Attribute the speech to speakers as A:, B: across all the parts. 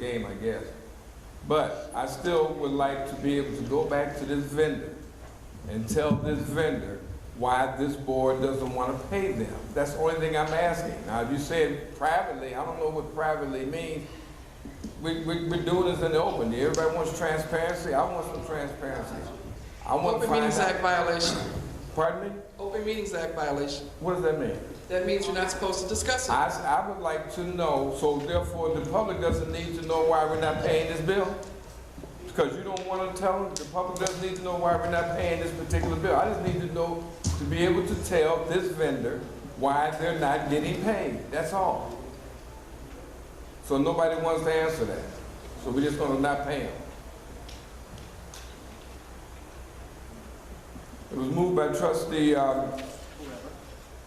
A: game, I guess. But I still would like to be able to go back to this vendor and tell this vendor why this board doesn't want to pay them. That's the only thing I'm asking. Now, if you said privately, I don't know what privately means. We, we, we're doing this in the open. Everybody wants transparency. I want some transparency. I want to
B: Open
A: find
B: Meetings Act
A: out.
B: violation.
A: Pardon me?
B: Open Meetings Act violation.
A: What does that mean?
B: That means you're not supposed to discuss it.
A: I, I would like to know, so therefore the public doesn't need to know why we're not paying this bill? Because you don't want to tell them, the public doesn't need to know why we're not paying this particular bill. I just need to know, to be able to tell this vendor why they're not getting paid, that's all. So nobody wants to answer that, so we're just gonna not pay them. It was moved by trustee, um,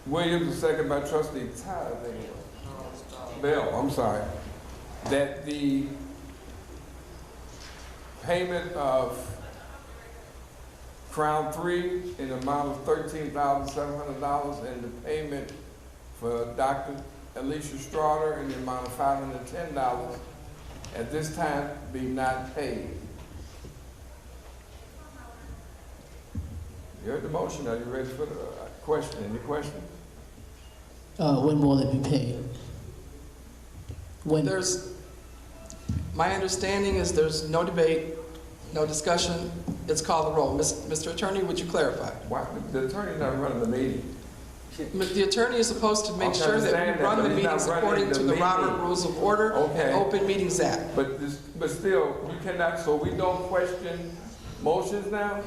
A: Williams, and second by trustee Tyler. I think it was. Bell, I'm sorry, that the payment of Crown Three in the amount of thirteen thousand seven hundred dollars and the payment for Dr. Alicia Strader in the amount of five hundred and ten dollars at this time be not paid. You heard the motion, are you ready for the uh, question, any questions?
C: Uh, when will it be paid? When,
B: There's, my understanding is there's no debate, no discussion. It's called the roll. Mis- Mr. Attorney, would you clarify?
A: Why, the attorney's not running the meeting.
B: The attorney is supposed to make sure that
A: understand
B: we
A: that,
B: run
A: but
B: the
A: he's not
B: meetings
A: running
B: according
A: the
B: to the
A: meeting.
B: Robert Rules of Order
A: Okay.
B: and Open Meetings Act.
A: But this, but still, you cannot, so we don't question motions now?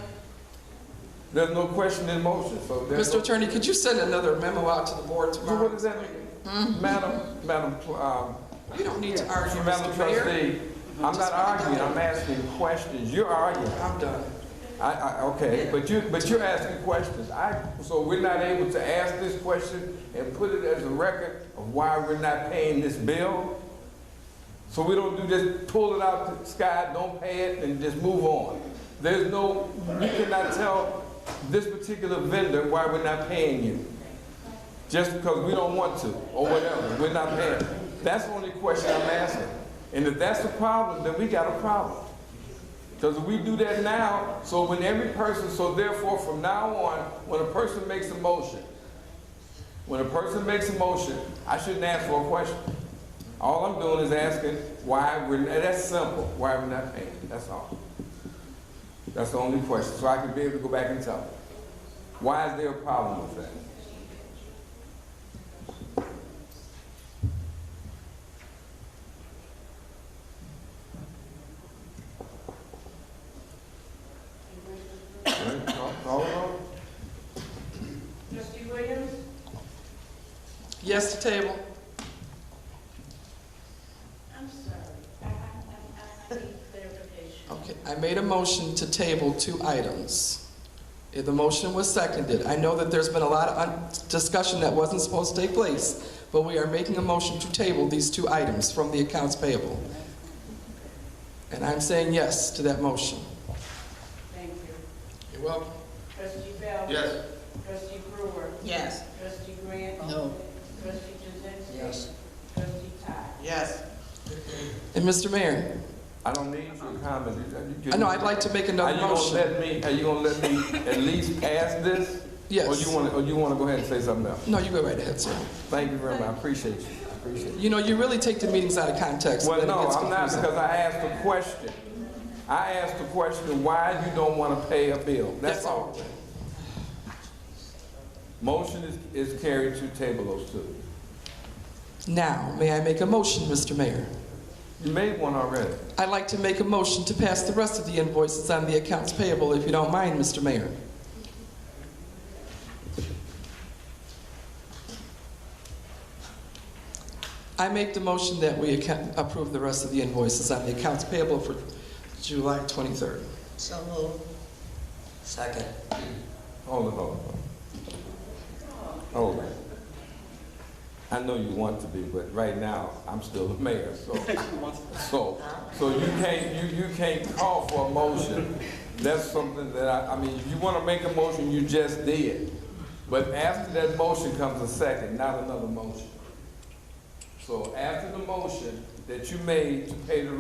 A: There's no question in motion, so there's.
B: Mr. Attorney, could you send another memo out to the board
A: So what
B: tomorrow?
A: does that mean? Madam, Madam, um,
B: You don't need to argue,
A: Madam
B: Mr. Mayor.
A: trustee, I'm not arguing, I'm asking questions. You're arguing.
B: I'm done.
A: I, I, okay, but you, but you're asking questions. I, so we're not able to ask this question and put it as a record of why we're not paying this bill? So we don't do just pull it out the sky, don't pay it, and just move on. There's no, you cannot tell this particular vendor why we're not paying you. Just because we don't want to, or whatever, we're not paying. That's the only question I'm asking. And if that's the problem, then we got a problem. Because we do that now, so when every person, so therefore from now on, when a person makes a motion, when a person makes a motion, I shouldn't ask for a question. All I'm doing is asking why we're, and that's simple, why we're not paying, that's all. That's the only question, so I can be able to go back and tell them. Why is there a problem with that? Right? Call- call the roll?
D: Trustee Williams?
B: Yes to table.
D: I'm sorry, I, I, I, I need clarification.
B: Okay, I made a motion to table two items. Eh, The motion was seconded. I know that there's been a lot of un- discussion that wasn't supposed to take place, but we are making a motion to table these two items from the accounts payable. And I'm saying yes to that motion.
D: Thank you.
B: You're welcome.
D: Trustee Bell?
A: Yes.
D: Trustee Brewer?
E: Yes.
D: Trustee Grant?
C: no,
D: Trustee Jazinski? Yes. Trustee Todd?
E: Yes.
B: And Mr. Mayor,
A: I don't need your comment. You- you-
B: I know I'd like to make
A: Are
B: another
A: you gonna
B: motion.
A: let me, are you gonna let me at least ask this? Or
B: Yes.
A: you wanna, or you wanna go ahead and say something else?
B: No, you go right ahead, sir.
A: Thank you very much, I appreciate you, I appreciate you.
B: You know, you really take the meetings out of context. and
A: Well,
B: then it
A: no,
B: gets
A: I'm not,
B: confusing.
A: because I asked a question. I asked a question, why you don't wanna pay a bill, that's
B: Yes.
A: all. Motion is, is carried to table those two.
B: Now, may I make a motion, Mr. Mayor?
A: You made one already.
B: I'd like to make a motion to pass the rest of the invoices on the accounts payable, if you don't mind, Mr. Mayor. I make the motion that we account- approve the rest of the invoices on the accounts payable for July 23rd.
E: So moved. Second.
A: Hold it, hold it. Hold it. I know you want to be, but right now, I'm still the mayor, so. So, so you can't, you, you can't call for a motion. That's something that I, I mean, if you wanna make a motion, you just did. But after that motion comes a second, not another motion. So after the motion that you made to pay the